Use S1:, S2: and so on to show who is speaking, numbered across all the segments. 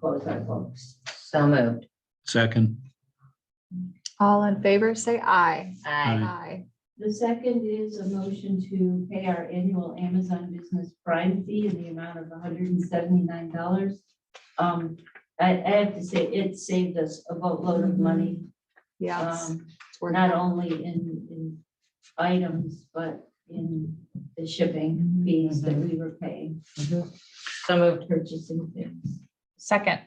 S1: quote unquote. So moved.
S2: Second,
S3: All in favor, say aye.
S1: Aye.
S3: Aye.
S4: The second is a motion to pay our annual Amazon Business Prime fee in the amount of hundred and seventy-nine dollars. Um, I, I have to say, it saved us a boatload of
S1: Mhm.
S4: money.
S3: Yes.
S4: um,
S3: it's worth
S4: Not
S3: it.
S4: only in, in items, but in the
S1: Mhm.
S4: shipping fees that we were paying
S1: Mm-hmm. So
S4: for
S1: moved.
S4: purchasing things.
S5: Second,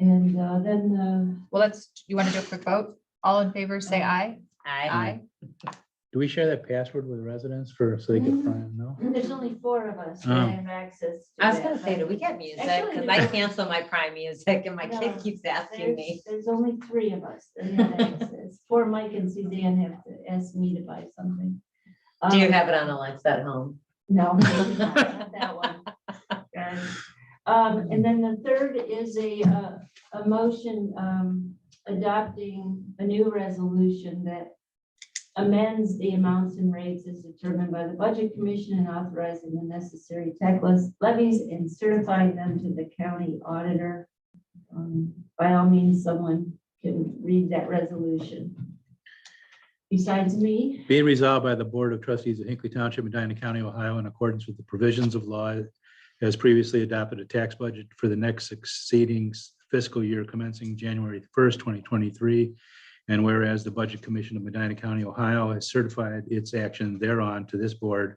S4: And uh, then the
S5: well, let's, you want to do a quick vote? All in favor, say aye.
S1: Aye.
S5: Aye.
S2: do we share that password with residents for, so they can find, no?
S4: There's only four of us
S2: Oh.
S4: that have access. to
S1: I was
S4: that,
S1: gonna say,
S4: but
S1: do we get music?
S4: Actually,
S1: Because I
S4: there's-
S1: cancel my Prime music and my kid
S4: No,
S1: keeps asking
S4: There's,
S1: me.
S4: there's only three of us that have access. Poor Mike and Suzanne have to ask me to buy something.
S1: Do you
S4: Um,
S1: have it on Alexa at home?
S4: No. maybe not, not that one. Darn. Um, and then the third is a, uh, a motion, um, adopting a new resolution that amends the amounts and rates as determined by the Budget Commission and authorizing the necessary tax levies and certifying them to the county auditor. Um, By all means, someone can read that resolution. Besides me.
S2: Be it resolved by the Board of Trustees of Hinkley Township, Medina County, Ohio, in accordance with the provisions of law as previously adopted a tax budget for the next succeeding fiscal year commencing January first, twenty twenty-three. And whereas the Budget Commission of Medina County, Ohio has certified its action thereon to this board,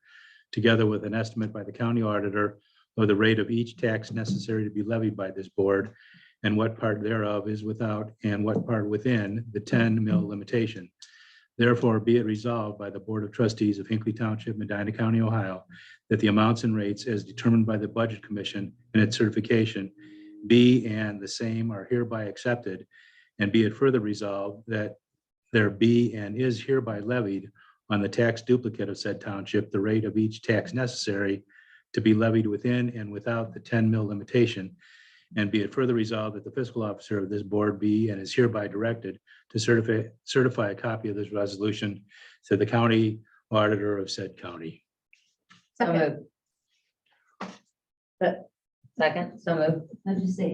S2: together with an estimate by the county auditor of the rate of each tax necessary to be levied by this board, and what part thereof is without and what part within the ten mil limitation. Therefore, be it resolved by the Board of Trustees of Hinkley Township, Medina County, Ohio, that the amounts and rates as determined by the Budget Commission and its certification be and the same are hereby accepted, and be it further resolved that there be and is hereby levied on the tax duplicate of said township, the rate of each tax necessary to be levied within and without the ten mil limitation. And be it further resolved that the fiscal officer of this board be and is hereby directed to certify, certify a copy of this resolution to the county auditor of said county.
S1: So
S5: Second.
S1: moved. Se- Second, so moved.
S4: I'll just say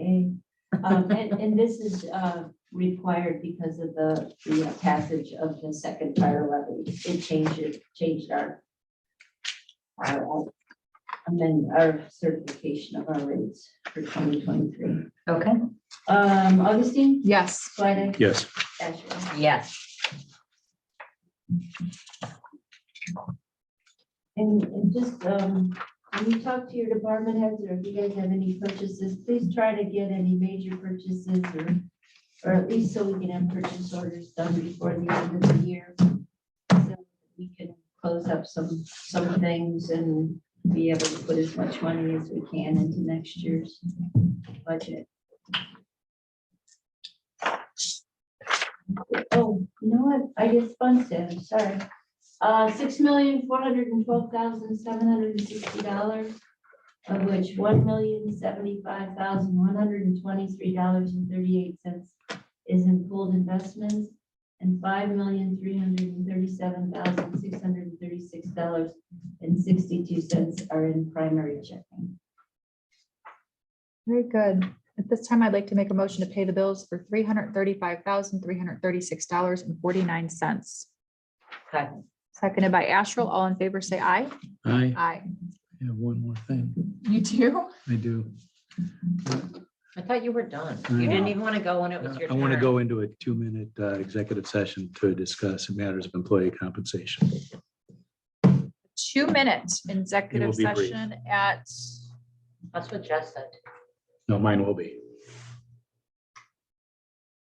S4: A. Um, And, and this is uh, required because of the, the passage of the second fire levy. It changed, it changed our our, uh, amend our certification of our rates for 2023.
S1: Okay.
S4: Um, Augustine,
S3: Yes.
S4: Swedek,
S2: Yes.
S4: Ashworth.
S1: Yes.
S4: And, and just, um, when you talk to your department heads, or if you guys have any purchases, please try to get any major purchases or, or at least so we can have purchase orders done before the end of the year. So We can close up some, some things and be able to put as much money as we can into next year's budget. Oh, you know what? I just spun it, sorry. Uh, six million, four hundred and twelve thousand, seven hundred and sixty dollars, of which one million, seventy-five thousand, one hundred and twenty-three dollars and thirty-eight cents is in pooled investments, and five million, three hundred and thirty-seven thousand, six hundred and thirty-six dollars and sixty-two cents are in primary checking.
S3: Very good. At this time, I'd like to make a motion to pay the bills for three hundred thirty-five thousand, three hundred thirty-six dollars and forty-nine cents.
S1: Second.
S3: Seconded by Astral. All in favor, say aye.
S2: I
S3: Aye.
S2: have one more thing.
S5: You too?
S2: I do.
S1: I thought you were done.
S2: I
S1: You didn't
S2: know.
S1: even want to go when it was your
S2: I
S1: turn.
S2: want to go into a two-minute uh, executive session to discuss matters of employee compensation.
S3: Two minutes executive
S2: be brief.
S3: session at,
S1: That's what Jess said.
S2: No, mine will be.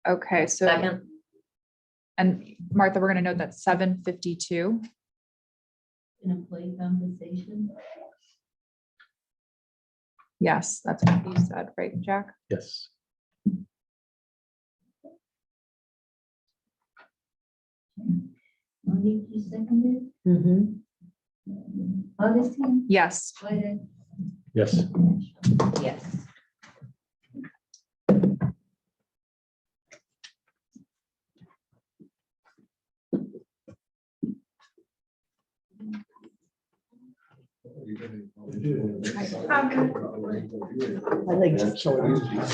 S3: okay, so,
S1: Second,
S3: and Martha, we're gonna note that seven fifty-two.
S4: In employee compensation,
S3: Yes, that's what you said, right, Jack?
S2: Yes.
S4: Monique, you seconded? Augustine,
S3: Yes.
S4: Swedek,
S2: Yes.
S4: Ashworth.
S1: yes.
S6: I think so.